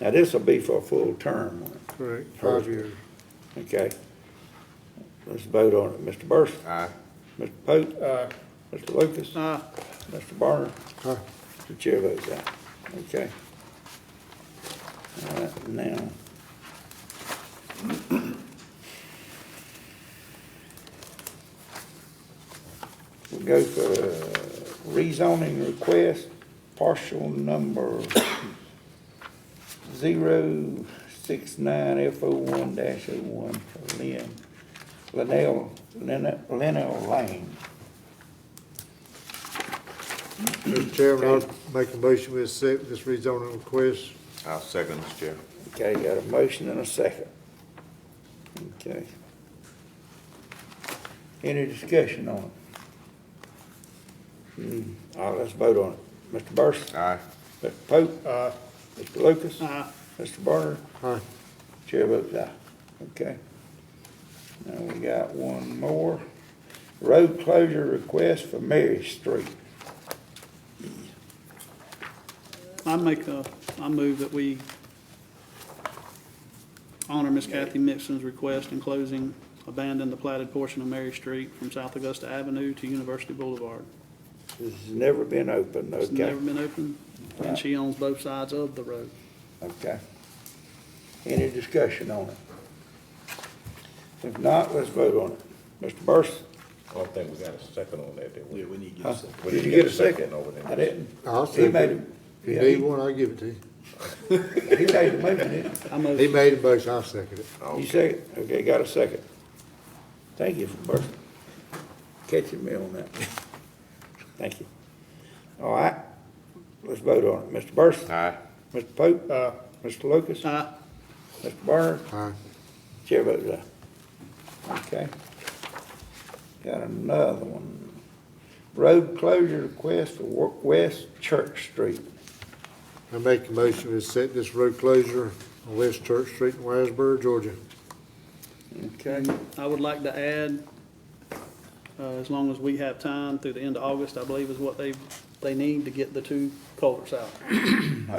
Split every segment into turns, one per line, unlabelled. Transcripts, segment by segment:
Now, this will be for a full term,
Correct, five years.
okay? Let's vote on it. Mr. Burson?
Aye.
Mr. Pope? Mr. Lucas?
Aye.
Mr. Barner?
Aye.
The chair votes aye. Okay. All right, now. We'll go for rezoning request, partial number zero six nine F O one dash O one for Lynn, Linnell, Lin- Linnell Lane.
Mr. Chairman, I'll make a motion we accept this rezoning request.
I'll second, Mr. Chair.
Okay, got a motion and a second. Okay. Any discussion on it? Hmm, All right, let's vote on it. Mr. Burson?
Aye.
Mr. Pope? Aye. Mr. Lucas?
Uh,
Aye. Mr. Barner?
Aye.
Chair votes aye. Okay. Now we got one more. Road closure request for Mary Street.
I make a, I move that we honor Miss Kathy Mixon's request in closing, abandon the platted portion of Mary Street from South Augusta Avenue to University Boulevard.
This has never been opened, okay?
It's never been open, and she owns both sides of the road.
Okay. Any discussion on it? If not, let's vote on it. Mr. Burson?
Oh, I don't think we got a second on that, did we? Yeah, we need
huh? Did you get a second? I didn't.
I'll
He
second.
made him,
If you
yeah,
need
he
one, I'll give it to you.
he made the motion, didn't
I
He
motion,
made a motion, I'll second it.
Oh.
he? You second? Okay, got a second. Thank you for Burson. Catching me on that. Thank you. All right, let's vote on it. Mr. Burson?
Aye.
Mr. Pope? Mr. Lucas?
aye,
Mr. Burner?
Aye.
Chair votes aye. Okay. Got another one. Road closure request for Wa- West Church Street.
I make a motion we accept this road closure on West Church Street in Wiseburg, Georgia.
Okay.
I would like to add, uh, as long as we have time through the end of August, I believe is what they, they need to get the two culverts out.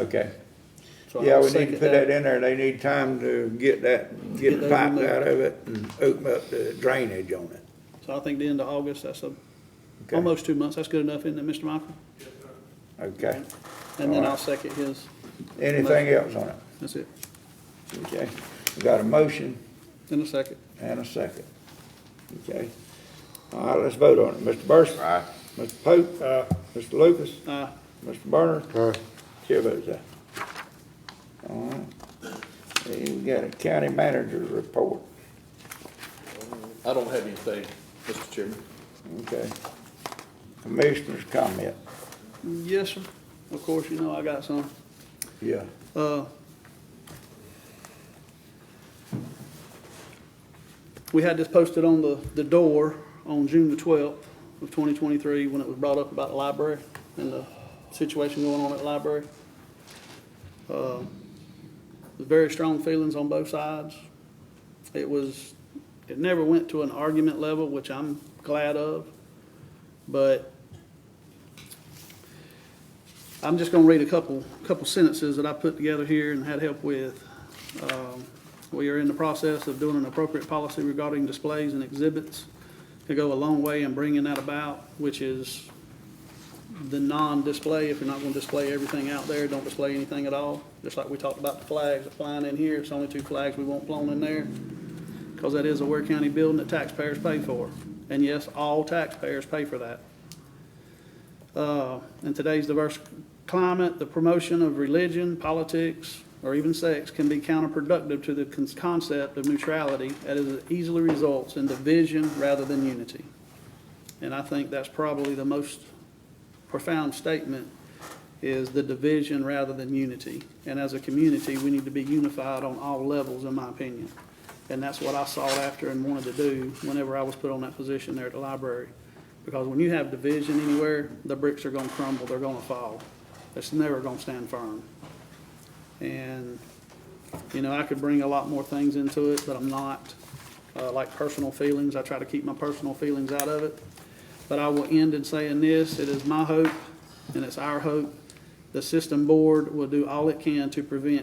Okay.
So I
Yeah,
would
we need to
second
put that in there. They need time to get that, Mm. get the
those
pipes
removed.
out of it and open up the drainage on it.
So I think the end of August, that's a,
Okay.
almost two months, that's good enough, isn't it, Mr. Michael?
Okay.
And then
All
I'll
right.
second his,
Anything else on it?
that's it,
Okay. We got a motion
in a second.
and a second. Okay. All right, let's vote on it. Mr. Burson?
Aye.
Mr. Pope? Mr. Lucas?
Uh,
Mr. Burner?
Aye.
Chair votes aye. All right. Then we got a county manager's report,
I don't have anything, Mr. Chairman.
okay? Commissioner's comment,
yes, sir, of course, you know I got some.
yeah.
Uh, We had this posted on the, the door on June the twelfth of twenty twenty-three, when it was brought up about the library and the situation going on at the library. Uh, Very strong feelings on both sides. It was, it never went to an argument level, which I'm glad of, but I'm just gonna read a couple, couple sentences that I put together here and had help with. Um, We are in the process of doing an appropriate policy regarding displays and exhibits to go a long way in bringing that about, which is the non-display, if you're not gonna display everything out there, don't display anything at all. Just like we talked about the flags that flying in here, it's only two flags we want flown in there, because that is a Ware County building that taxpayers pay for. And yes, all taxpayers pay for that. Uh, In today's diverse climate, the promotion of religion, politics, or even sex can be counterproductive to the con- concept of neutrality as it easily results in division rather than unity. And I think that's probably the most profound statement is the division rather than unity. And as a community, we need to be unified on all levels, in my opinion. And that's what I sought after and wanted to do whenever I was put on that position there at the library. Because when you have division anywhere, the bricks are gonna crumble, they're gonna fall. It's never gonna stand firm. And, you know, I could bring a lot more things into it, but I'm not. Uh, like personal feelings, I try to keep my personal feelings out of it. But I will end in saying this, it is my hope, and it's our hope, the system board will do all it can to prevent